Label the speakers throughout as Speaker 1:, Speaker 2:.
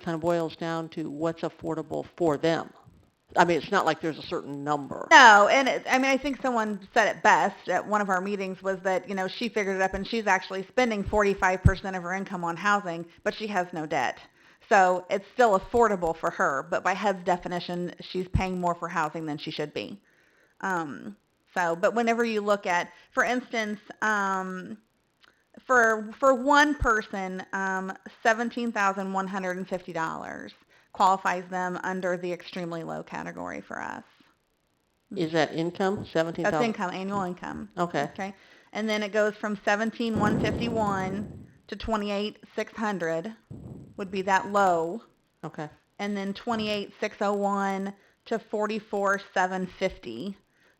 Speaker 1: kind of boils down to what's affordable for them. I mean, it's not like there's a certain number.
Speaker 2: No, and it, I mean, I think someone said it best at one of our meetings was that, you know, she figured it up and she's actually spending 45% of her income on housing, but she has no debt. So it's still affordable for her, but by HUD's definition, she's paying more for housing than she should be. Um, so, but whenever you look at, for instance, um, for for one person, um, seventeen thousand one hundred and fifty dollars qualifies them under the extremely low category for us.
Speaker 1: Is that income, seventeen
Speaker 2: That's
Speaker 1: thousand?
Speaker 2: income, annual income.
Speaker 1: Okay,
Speaker 2: Okay. And then it goes from seventeen one fifty one to twenty eight six hundred would be that low.
Speaker 1: okay,
Speaker 2: And then twenty eight six oh one to forty four seven fifty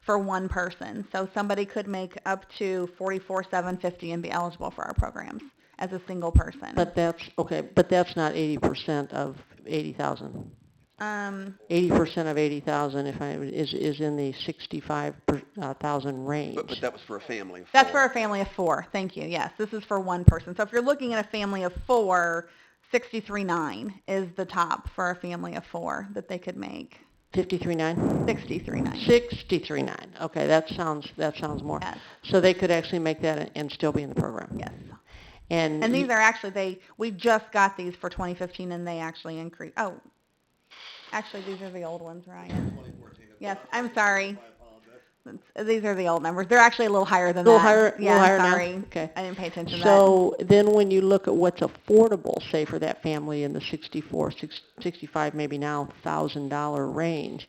Speaker 2: for one person. So somebody could make up to forty four seven fifty and be eligible for our programs as a single person.
Speaker 1: but that's, okay, but that's not eighty percent of eighty thousand.
Speaker 2: um
Speaker 1: Eighty percent of eighty thousand, if I, is, is in the sixty-five per- uh, thousand
Speaker 3: But, but
Speaker 1: range.
Speaker 3: that was for a family of
Speaker 2: That's for
Speaker 3: four.
Speaker 2: a family of four. Thank you. Yes, this is for one person. So if you're looking at a family of four, sixty-three nine is the top for a family of four that they could make.
Speaker 1: Fifty-three nine?
Speaker 2: Sixty-three nine.
Speaker 1: Sixty-three nine, okay, that sounds, that sounds more.
Speaker 2: Yes.
Speaker 1: So they could actually make that and- and still be in the program?
Speaker 2: Yes.
Speaker 1: And.
Speaker 2: And
Speaker 1: you-
Speaker 2: these are actually they we just got these for 2015 and they actually increased. Oh, actually these are the old ones, Ryan. Yes, I'm sorry. It's- These are the old numbers. They're actually a little higher than
Speaker 1: Little
Speaker 2: that.
Speaker 1: higher- little
Speaker 2: yeah,
Speaker 1: higher now?
Speaker 2: sorry.
Speaker 1: Okay.
Speaker 2: I didn't pay attention to that.
Speaker 1: So then when you look at what's affordable, say for that family in the 64, six- 65, maybe now thousand dollar range,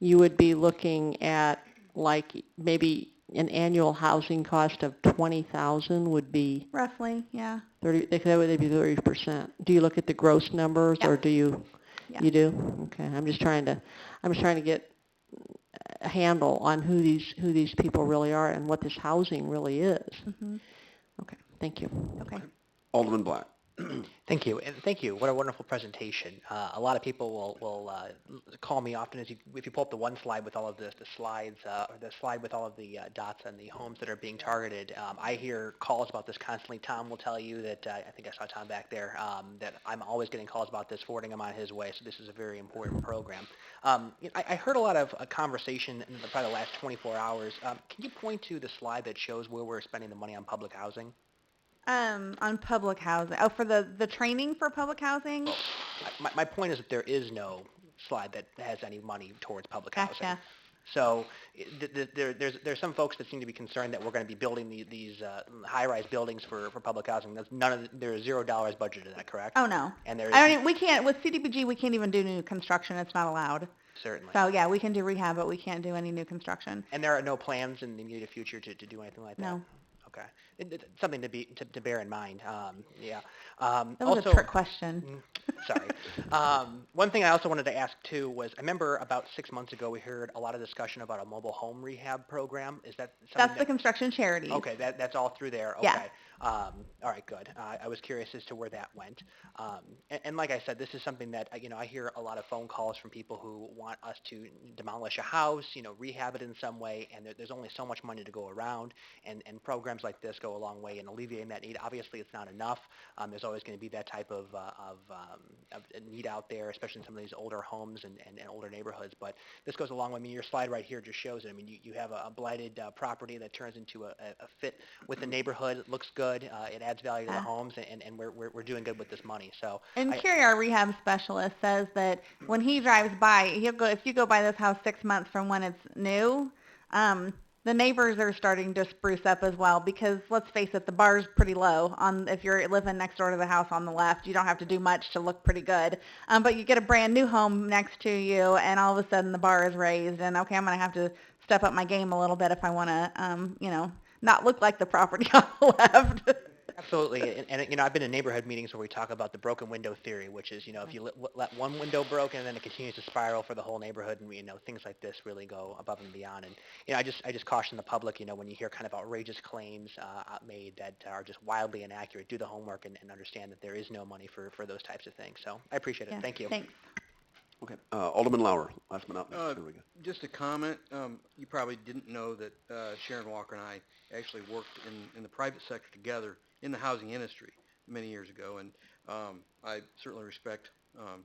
Speaker 1: you would be looking at like maybe an annual housing cost of 20,000 would be
Speaker 2: roughly, yeah.
Speaker 1: 30, that would that'd be 30%. Do you look at the gross numbers or
Speaker 2: Yeah.
Speaker 1: do you,
Speaker 2: Yeah.
Speaker 1: you do? Okay, I'm just trying to, I'm just trying to get a handle on who these, who these people really are and what this housing really is.
Speaker 2: Mhm.
Speaker 1: Okay, thank you.
Speaker 2: Okay.
Speaker 3: Alderman Black.
Speaker 4: Thank you, and thank you. What a wonderful presentation. Uh, a lot of people will, will uh, l- call me often as you, if you pull up the one slide with all of this, the slides, uh, or the slide with all of the uh, dots and the homes that are being targeted. Um, I hear calls about this constantly. Tom will tell you that, uh, I think I saw Tom back there, um, that I'm always getting calls about this, forwarding them on his way, so this is a very important program. Um, you know, I, I heard a lot of uh, conversation in the, probably the last 24 hours. Um, can you point to the slide that shows where we're spending the money on public housing?
Speaker 2: Um, on public housing. Oh, for the, the training for public housing?
Speaker 4: Oh. My, my point is that there is no slide that has any money towards public housing.
Speaker 2: Gotcha.
Speaker 4: So i- th- th- there, there's, there's some folks that seem to be concerned that we're going to be building the, these uh, high-rise buildings for, for public housing. That's none of the, there is zero dollars budgeted in that, correct?
Speaker 2: Oh, no.
Speaker 4: And there is
Speaker 2: I mean, we can't, with CDBG, we can't even do new construction. It's not allowed.
Speaker 4: certainly.
Speaker 2: So, yeah, we can do rehab, but we can't do any new construction.
Speaker 4: and there are no plans in the immediate future to, to do anything like that.
Speaker 2: No.
Speaker 4: Okay. It- it- something to be to, to bear in mind. Um, yeah. Um,
Speaker 2: That was
Speaker 4: also,
Speaker 2: a trick question.
Speaker 4: Mm, Sorry. Um, one thing I also wanted to ask too was, I remember about six months ago, we heard a lot of discussion about a mobile home rehab program. Is that
Speaker 2: That's
Speaker 4: something
Speaker 2: the
Speaker 4: that?
Speaker 2: construction charity.
Speaker 4: Okay, that, that's all through there,
Speaker 2: Yeah.
Speaker 4: okay. Um, all right, good. Uh, I was curious as to where that went. Um, and, and like I said, this is something that, uh, you know, I hear a lot of phone calls from people who want us to demolish a house, you know, rehab it in some way, and there, there's only so much money to go around, and, and programs like this go a long way in alleviating that need. Obviously, it's not enough. Um, there's always going to be that type of, uh, of, um, of need out there, especially in some of these older homes and, and, and older neighborhoods. But this goes a long way. I mean, your slide right here just shows it. I mean, you, you have a, a blighted uh, property that turns into a, a a fit with the neighborhood. It looks good. Uh, it adds value to the
Speaker 2: Uh.
Speaker 4: homes, and, and we're, we're, we're doing good with this money. So
Speaker 2: And
Speaker 4: I-
Speaker 2: Kerry, our rehab specialist, says that when he drives by, he'll go, if you go by this house six months from when it's new, um, the neighbors are starting to spruce up as well because let's face it, the bar's pretty low on if you're living next door to the house on the left. You don't have to do much to look pretty good. Um, but you get a brand new home next to you and all of a sudden the bar is raised and okay, I'm going to have to step up my game a little bit if I want to, um, you know, not look like the property on the left.
Speaker 4: Absolutely, and, and you know, I've been in neighborhood meetings where we talk about the broken window theory, which is you know, if you let, let one window broken, and then it continues to spiral for the whole neighborhood, and you know, things like this really go above and beyond. And you know, I just I just caution the public, you know, when you hear kind of outrageous claims uh, out- made that are just wildly inaccurate, do the homework and, and understand that there is no money for for those types of things. So I appreciate it.
Speaker 2: Yeah,
Speaker 4: Thank you.
Speaker 2: Thanks.
Speaker 3: Okay. Uh, Alderman Lauer, last but not least.
Speaker 5: Uh,
Speaker 3: There we go.
Speaker 5: Just a comment, um, you probably didn't know that uh, Sharon Walker and I actually worked in, in the private sector together in the housing industry many years ago, and um, I certainly respect um,